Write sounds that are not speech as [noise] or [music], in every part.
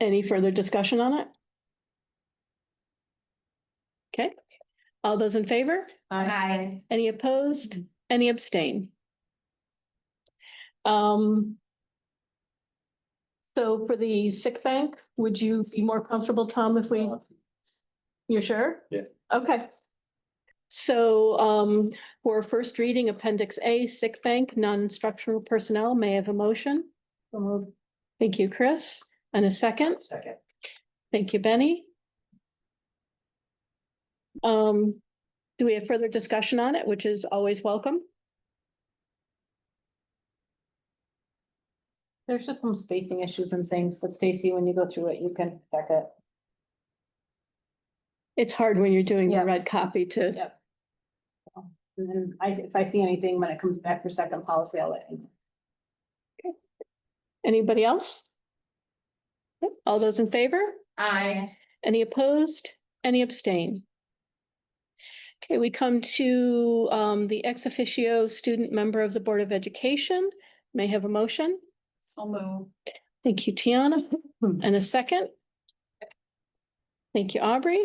Any further discussion on it? Okay, all those in favor? Aye. Any opposed? Any abstain? Um. So for the sick bank, would you be more comfortable, Tom, if we, you're sure? Yeah. Okay. So um, for first reading, Appendix A, sick bank, non-instructional personnel, may I have a motion? Thank you, Chris. And a second? Second. Thank you, Benny. Um, do we have further discussion on it, which is always welcome? There's just some spacing issues and things, but Stacy, when you go through it, you can check it. It's hard when you're doing the Yeah. red copy to, Yeah. And then I, if I see anything when it comes back for second policy, I'll let you. know. anybody else? Yep, All those in favor? Aye. Any opposed? Any abstain? Okay, we come to um the ex officio student member of the Board of Education. May I have a motion. So move. Thank you, Tiana. And a second? Thank you, Aubrey.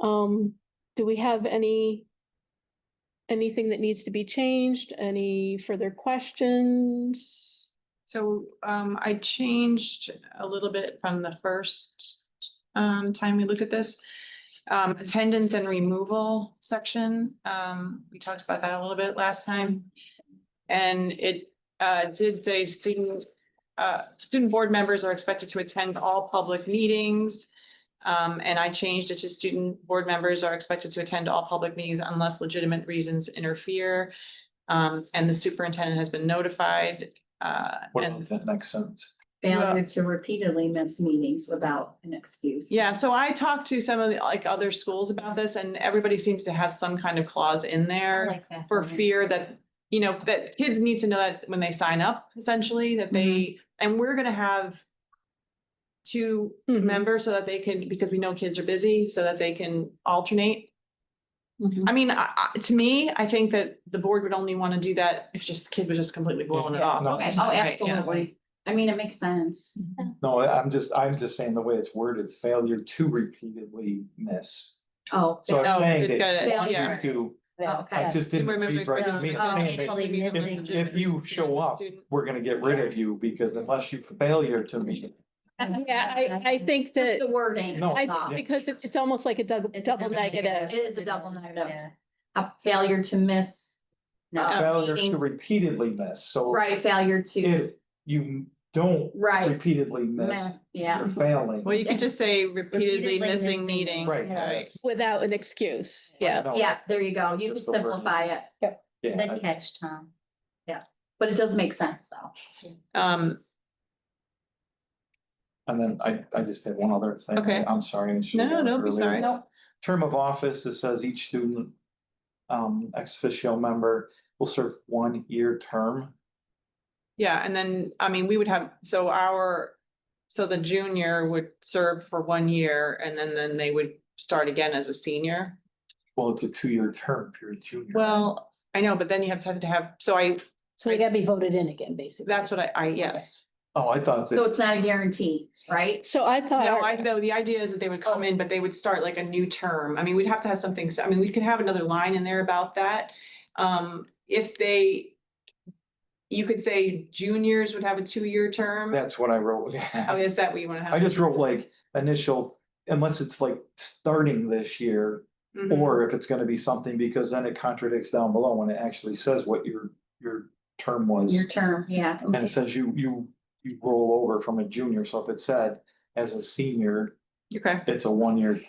Um, do we have any? Anything that needs to be changed? Any further questions? So um I changed a little bit from the first um time we looked at this. Um attendance and removal section, um we talked about that a little bit last time. And it uh did say student uh student board members are expected to attend all public meetings. Um and I changed it to student board members are expected to attend all public meetings unless legitimate reasons interfere. Um and the superintendent has been notified uh, What and, about that next sentence? Failure to repeatedly miss meetings without an excuse. yeah, so I talked to some of the, like, other schools about this and everybody seems to have some kind of clause in there like that. for fear that, you know, that kids need to know that when they sign up, essentially, that they, Mm-hmm. and we're gonna have two members so that they can, because we know kids are busy, so that they can alternate. Mm-hmm. I mean, I, I, to me, I think that the board would only want to do that if just the kid was just completely blowing it Yeah, off. no. all the Okay. time, Oh, right? Yeah. absolutely. I mean, it makes sense. No, I- I'm just, I'm just saying the way it's worded, failure to repeatedly miss. Oh. So Oh, I'm good, saying that good, yeah. you, I Okay. just didn't Remember read right. failure. me- Oh, me- me- failure. If, if you show up, we're gonna get rid of you because unless you failure to meet. Uh, Yeah, I, I think that, The wording. No, I, because it's, it's almost like a double, It's a double negative. It is a double negative. A failure to miss. No. Failure to meeting. repeatedly miss, so. Uh, Right, failure to, If you don't right, repeatedly miss, meh, yeah. you're failing. Well, you could just say repeatedly Repeatedly missing missing meeting. meeting. Right. Yeah. Right. Without an excuse, yeah. No, Yeah, there you go. You Just could the wording. simplify it, Yeah, I- catch, Tom. but it does make sense though. Um, And then I, I just had one other thing. Okay. I'm sorry. I should No, have done it don't be earlier. sorry. Nope. Term of office, it says each student, um, ex officio member will serve one year term. yeah, and then, I mean, we would have, so our, so the junior would serve for one year and then, then they would start again as a senior. Well, it's a two-year term if you're a junior. Well, I know, but then you have to have to have, so I, So they gotta be voted in again, basically. that's what I, I, yes. Oh, I thought So that, it's not a guarantee, right? So I thought. No, I know, the idea is that they would come in, but they would start like a new term. I mean, we'd have to have something, so, I mean, we could have another line in there about that. Um, if they, you could say juniors would have a two-year term. that's what I wrote. [laughs] Oh, is that what you wanna have? I just wrote like initial, unless it's like starting this year, Mhm. or if it's gonna be something, because then it contradicts down below when it actually says what your, your term was. Your term, yeah. And it says you, you, you roll over from a junior, so if it said as a senior, Okay, it's a one-year.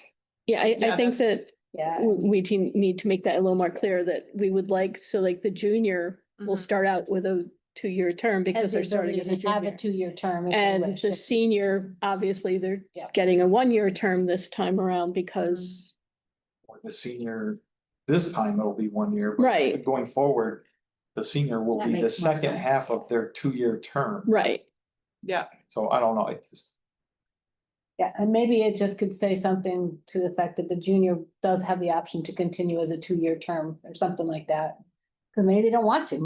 Yeah, I, I Yeah, think that Yeah. w- we te- need to make that a little more clear that we would like, so like the junior will Mhm. start out with a two-year term because Mm-hmm. Has the they're starting as a ability to Have a junior. two-year term. if they And wish. the senior, obviously, they're Yeah. getting a one-year term this time around because, Or the senior, this time it'll be one year. but Right. Going forward, the senior will That be the makes more second half sense. of their two-year Mm-hmm. term, right, yeah, so I don't know, it's just. Yeah, and maybe it just could say something to the fact that the junior does have the option to continue as a two-year term or something like that. Cause maybe they don't want to.